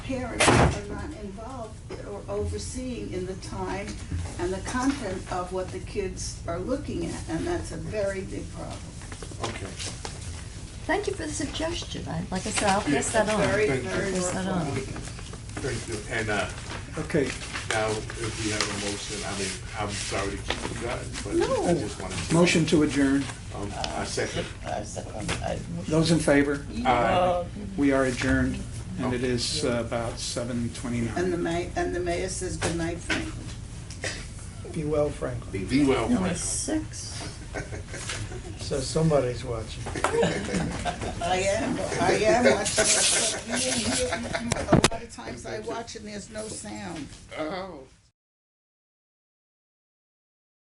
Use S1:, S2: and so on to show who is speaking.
S1: parents are not involved or overseeing in the time and the content of what the kids are looking at, and that's a very big problem.
S2: Okay.
S3: Thank you for the suggestion. I, like I said, I'll pass
S1: It's
S3: that on.
S1: Very,
S2: Thank you.
S1: very
S3: Pass that
S1: worthwhile.
S3: on.
S2: Thank you. And uh,
S4: Okay,
S2: now, if we have a motion, I mean, I'm sorry to keep you guys, but I
S3: No.
S2: just wanted to.
S4: motion to adjourn.
S2: Um, I second.
S5: I second, I,
S4: Those in favor?
S2: Aye.
S4: We are adjourned, and it is uh, about seven
S1: And the
S4: twenty-nine.
S1: ma, and the mayor says good night, Franklin.
S6: Be well, Franklin.
S2: Be well,
S3: Number
S2: Franklin.
S3: six.
S6: So somebody's watching.
S1: I am, I am watching it, but you didn't hear it. A lot of times I watch and there's no sound.
S2: Oh.